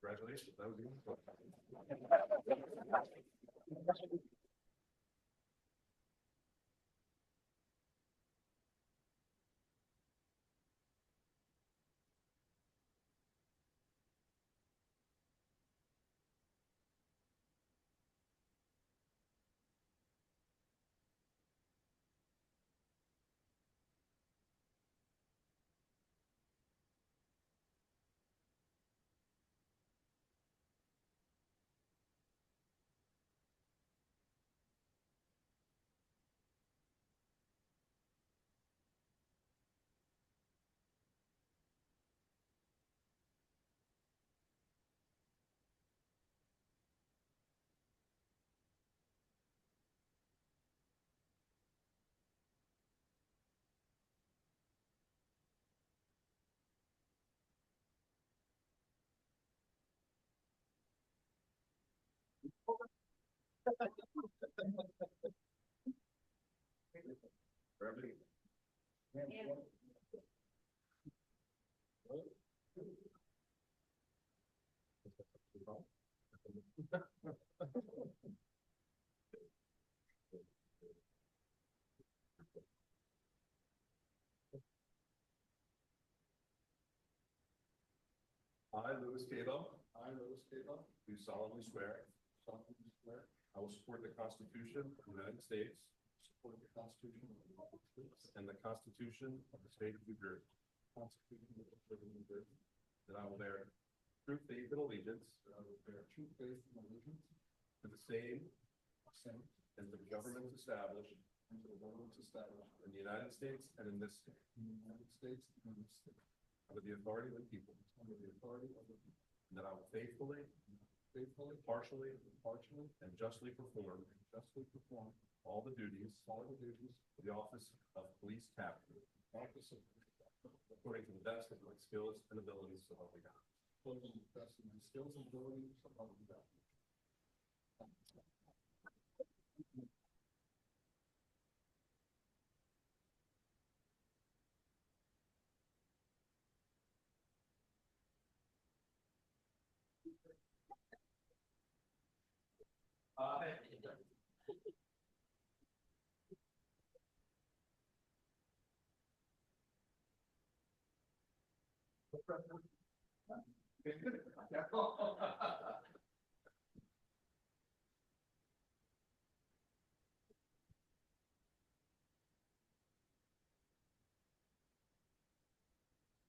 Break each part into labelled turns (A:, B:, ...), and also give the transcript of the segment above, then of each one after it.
A: Congratulations. That was good. I, Louis Cabo. I, Louis Cabo. Do solemnly swear. solemnly swear. I will support the Constitution of the United States. Support the Constitution of the United States. And the Constitution of the State of New Jersey. Constitution of the State of New Jersey. That I will bear true faith and allegiance. That I will bear true faith and allegiance. To the same. Same. And to the governments established. And to the governments established. In the United States and in this state. In the United States and in this state. Under the authority of the people. Under the authority of the people. And that I will faithfully. Faithfully. Partially. Partially. And justly perform. Justly perform. All the duties. All the duties. Of the office of police captain. Office of. According to the best of my skills and abilities, so help me God. According to the best of my skills and abilities, so help me God.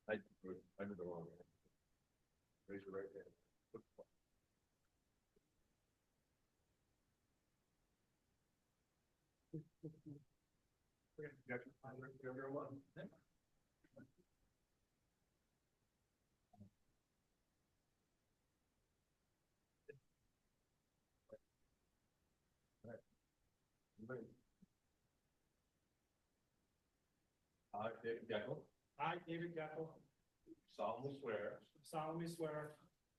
A: I, I did the wrong hand. Raise your right hand. Okay, you got your time, everyone? I, David Geckel,
B: I, David Geckel,
A: solemnly swear
B: solemnly swear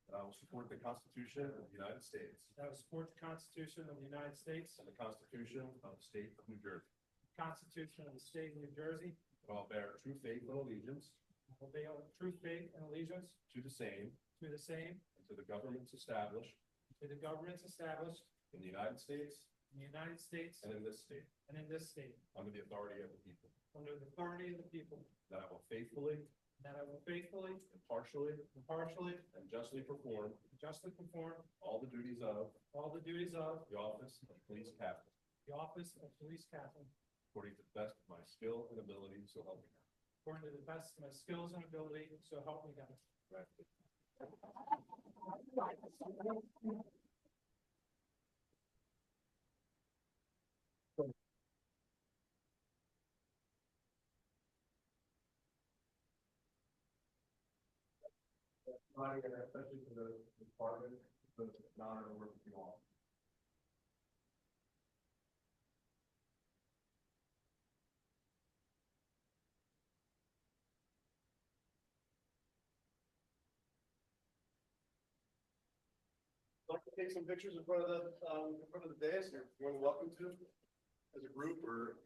A: that I will support the Constitution of the United States
B: that I will support the Constitution of the United States,
A: and the Constitution of the State of New Jersey,
B: the Constitution of the State of New Jersey,
A: that I will bear true faith and allegiance
B: and will bear true faith and allegiance
A: to the same
B: to the same,
A: and to the governments established
B: to the governments established
A: in the United States
B: in the United States
A: and in this state,
B: and in this state,
A: under the authority of the people,
B: under the authority of the people,
A: that I will faithfully,
B: and that I will faithfully,
A: impartially,
B: impartially,
A: and justly perform
B: and justly perform
A: all the duties of
B: all the duties of
A: the office of police captain,
B: the office of police captain
A: according to the best of my skill and ability, so help me God.
B: according to the best of my skills and ability, so help me God.
A: Right, and especially for the department, the honor to work with you all.
C: like to take some pictures in front of the, um, in front of the dais, you're more than welcome to, as a group or